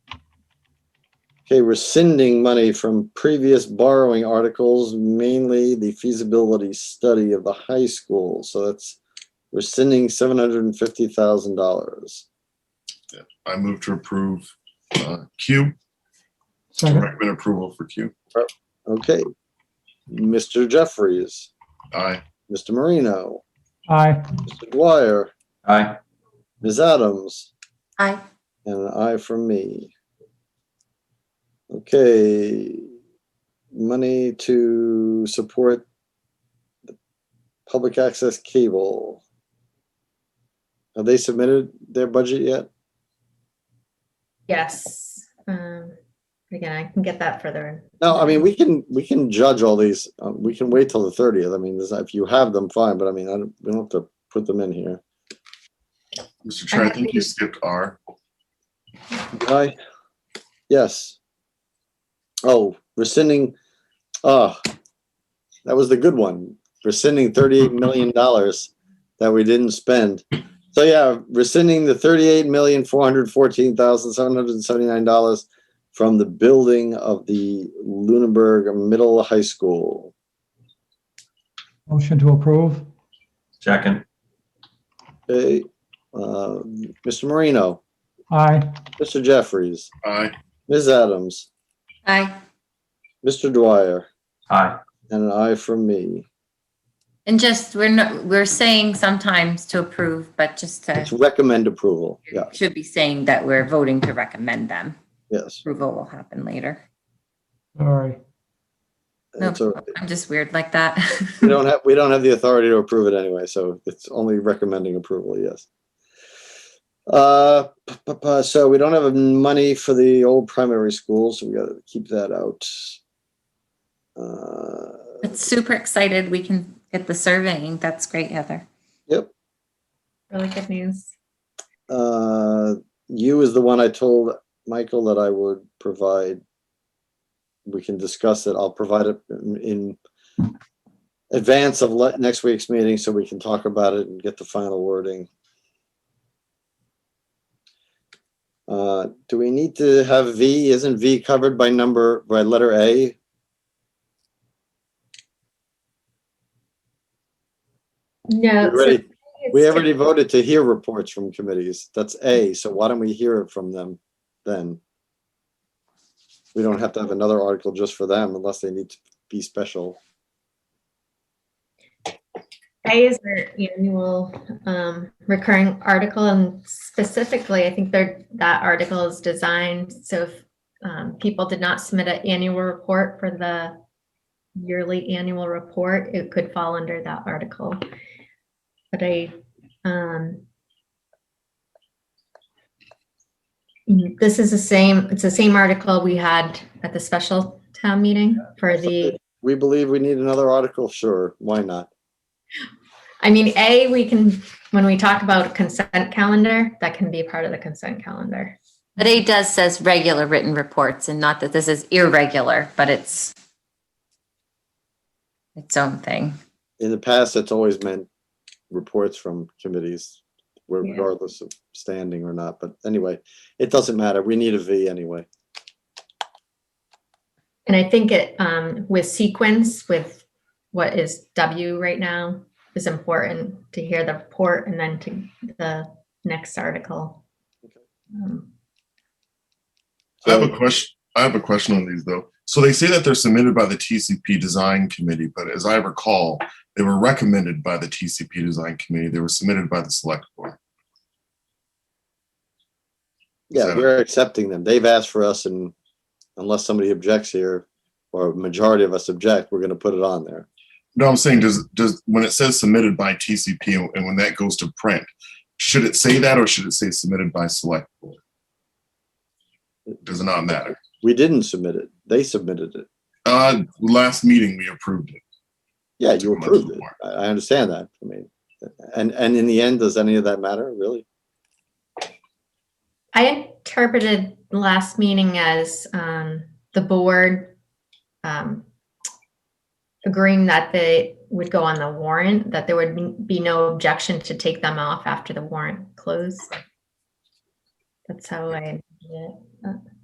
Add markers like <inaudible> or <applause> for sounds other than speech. Okay, rescinding money from previous borrowing articles, mainly the feasibility study of the high school. So that's rescinding seven hundred and fifty thousand dollars. I move to approve uh, Q, to Second, recommend approval for Q. Okay. Mr. Jeffries, Aye. Mr. Marino, aye. Mr. Dwyer, Aye. Ms. Adams, Aye. and an aye from me. Okay, money to support the public access cable. Have they submitted their budget yet? Yes. Um, again, I can get that further. No, I mean, we can, we can judge all these, um, we can wait till the thirtieth. I mean, there's- if you have them, fine, but I mean, I don't, we don't have to put them in here. Mr. Chair, I think you skipped R. Aye. Yes. Oh, rescinding, ah, that was the good one. Rescinding thirty-eight million dollars that we didn't spend. So yeah, rescinding the thirty-eight million, four hundred fourteen thousand, seven hundred and seventy-nine dollars from the building of the Lunenburg Middle High School. Motion to approve, Second. Okay, uh, Mr. Marino, aye. Mr. Jeffries, Aye. Ms. Adams, Aye. Mr. Dwyer, Aye. and an aye from me. And just, we're not, we're saying sometimes to approve, but just It's to, recommend approval. Yeah, should be saying that we're voting to recommend them. yes. Approval will happen later. Sorry. No, It's all- I'm just weird like that. We don't have, we don't have the authority to approve it anyway, so it's only recommending approval, yes. Uh, p- p- p- so we don't have money for the old primary schools, so we gotta keep that out. Uh, <laughs> But super excited we can get the surveying. That's great, Heather. Yep. Really good news. uh, you is the one I told Michael that I would provide. We can discuss it. I'll provide it in- in advance of le- next week's meeting so we can talk about it and get the final wording. Uh, do we need to have V? Isn't V covered by number, by letter A? No. We already- We already voted to hear reports from committees. That's A, so why don't we hear it from them then? We don't have to have another article just for them unless they need to be special. A is their annual um, recurring article, and specifically, I think they're- that article is designed so if um, people did not submit an annual report for the yearly annual report, it could fall under that article. But I, um, mm, this is the same, it's the same article we had at the special town meeting for the We believe we need another article, sure, why not? I mean, A, we can, when we talk about consent calendar, that can be part of the consent calendar. But A does says regular written reports and not that this is irregular, but it's its own thing. In the past, it's always meant reports from committees, where Yeah. regardless of standing or not, but anyway, it doesn't matter. We need a V anyway. And I think it, um, with sequence, with what is W right now, is important to hear the report and then to the next article. Um, I have So- a question. I have a question on these though. So they say that they're submitted by the TCP Design Committee, but as I recall, they were recommended by the TCP Design Committee. They were submitted by the Select Board. Yeah, So- we're accepting them. They've asked for us and unless somebody objects here or a majority of us object, we're gonna put it on there. No, I'm saying does does when it says submitted by TCP and when that goes to print, should it say that or should it say submitted by Select Board? Does it not matter? We didn't submit it. They submitted it. Uh, last meeting we approved it. Yeah, you Too much approved it. more. I, I understand that. I mean, and, and in the end, does any of that matter, really? I interpreted the last meeting as, um, the board, um, agreeing that they would go on the warrant, that there would be no objection to take them off after the warrant closed. That's how I, yeah.